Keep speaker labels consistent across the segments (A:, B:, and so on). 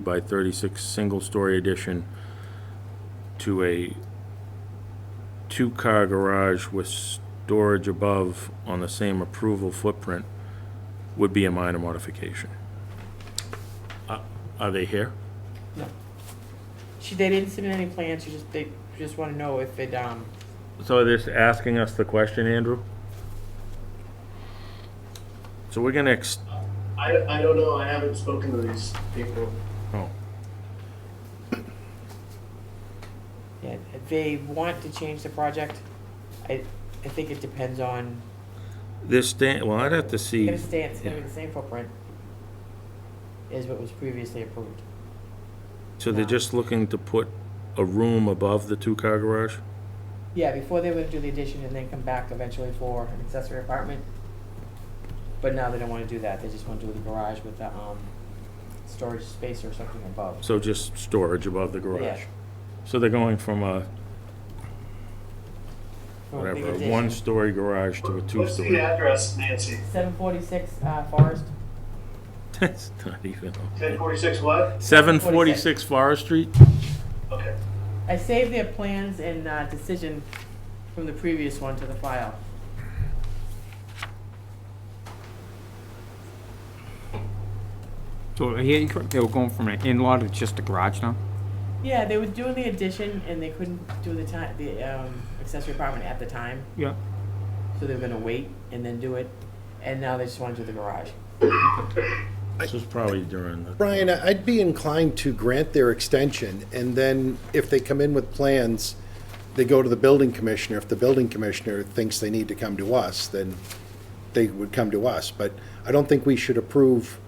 A: by 36 single-story addition to a two-car garage with storage above on the same approval footprint would be a minor modification. Are- Uh, Are they here?
B: She, they didn't submit any plans, she just, they just wanna know if it, um,
A: So they're just asking us the question, Andrew? So we're gonna ex-
C: I, I don't know. I haven't spoken to these people.
A: oh,
B: yeah, if they want to change the project, I, I think it depends on,
A: this stand, well, I'd have to
B: it's
A: see.
B: gonna stay, it's gonna be the same footprint as what was previously approved.
A: So they're just looking to put a room above the two-car garage?
B: Yeah, before they would do the addition and then come back eventually for an accessory apartment. But now they don't wanna do that, they just wanna do the garage with the, um, storage space or something above.
A: So just storage above the garage?
B: Yeah.
A: So they're going from a, whatever, a one-story garage to a
C: What's the
A: two-story?
C: address, Nancy?
B: Seven forty-six, uh, Forest,
A: That's not even,
C: Ten forty-six what?
A: seven forty-six Forest Street?
C: Okay.
B: I saved their plans and uh, decision from the previous one to the file.
D: So he incorrect, they were going from an in-law to just a garage now?
B: Yeah, they were doing the addition and they couldn't do the time, the um, accessory apartment at the time,
D: Yeah.
B: so they were gonna wait and then do it, and now they just want to do the garage.
A: This was probably during the,
E: Brian, I'd be inclined to grant their extension, and then if they come in with plans, they go to the building commissioner. If the building commissioner thinks they need to come to us, then they would come to us. But I don't think we should approve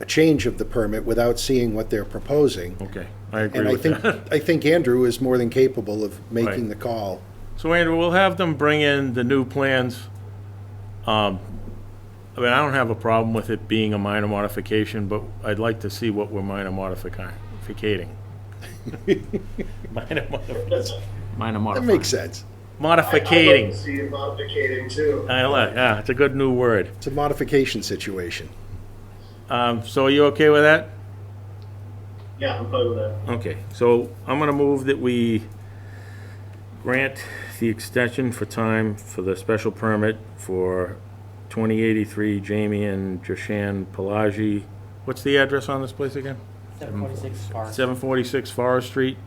E: a change of the permit without seeing what they're proposing.
A: okay, I
E: And
A: agree
E: I
A: with
E: think,
A: that.
E: I think Andrew is more than capable of
A: Right.
E: making the call.
A: So Andrew, we'll have them bring in the new plans. Um, I mean, I don't have a problem with it being a minor modification, but I'd like to see what we're minor modificating. Minor modificating.
D: Minor
E: That
D: modified.
E: makes sense.
C: I'd like to
A: Modificating.
C: See it modificating too.
A: I like, yeah, it's a good new word.
E: It's a modification situation.
A: Um, so are you okay with that?
C: Yeah, I'm fine with that.
A: Okay, so I'm gonna move that we grant the extension for time for the special permit for 2083 Jamie and Joshan Pelagi. What's the address on this place again?
B: Seven forty-six Forest.
A: 746 Forest Street.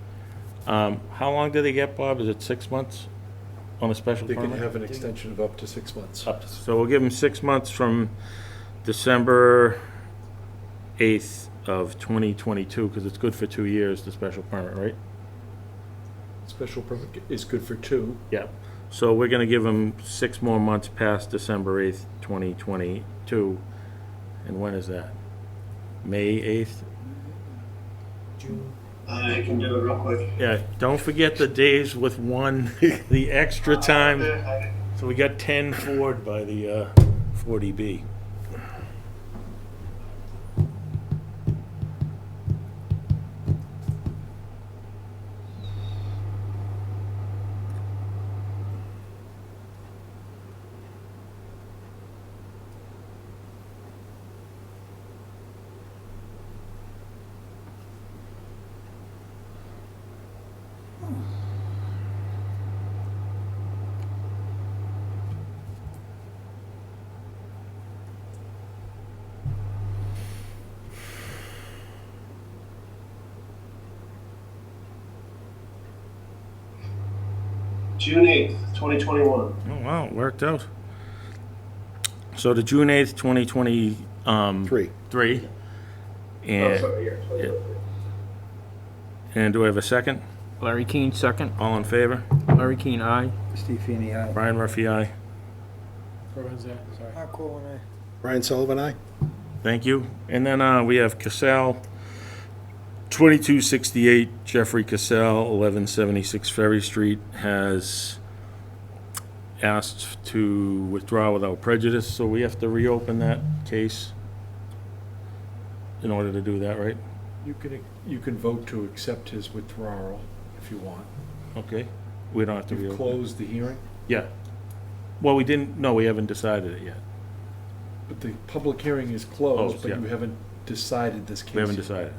A: Um, How long do they get, Bob? Is it six months on a special
F: They can
A: permit?
F: have an extension of up to six months.
A: Up to- So we'll give them six months from December 8th of 2022, because it's good for two years, the special permit, right?
F: Special permit is good for two.
A: Yeah, so we're gonna give them six more months past December eighth, twenty twenty-two, and when is that? May eighth?
C: I can do it real quick.
A: Yeah, don't forget the days with one, the extra time, so we got ten forward by the, uh, forty B.
C: June eighth, twenty twenty-one.
A: Oh, wow, it worked out. So the June eighth, twenty twenty, um,
E: Three.
A: three.
C: Oh,
A: And,
C: sorry, yeah, 2023.
A: and do I have a second?
D: Larry Keane, second.
A: All in favor?
D: Larry Keane, aye.
A: Brian Murphy, aye.
E: Brian Sullivan, I.
A: Thank you. And then uh, we have Cassell, 2268 Jeffrey Cassell, 1176 Ferry Street, has asked to withdraw without prejudice, so we have to reopen that case in order to do that, right?
F: You can, you can vote to accept his withdrawal if you want.
A: Okay. We don't have to
F: You've
A: reopen.
F: closed the hearing,
A: Yeah. Well, we didn't, no, we haven't decided it yet.
F: but the public hearing is
A: Closed,
F: closed, but
A: yeah.
F: you haven't decided this case.
A: We haven't
F: yet.
A: decided.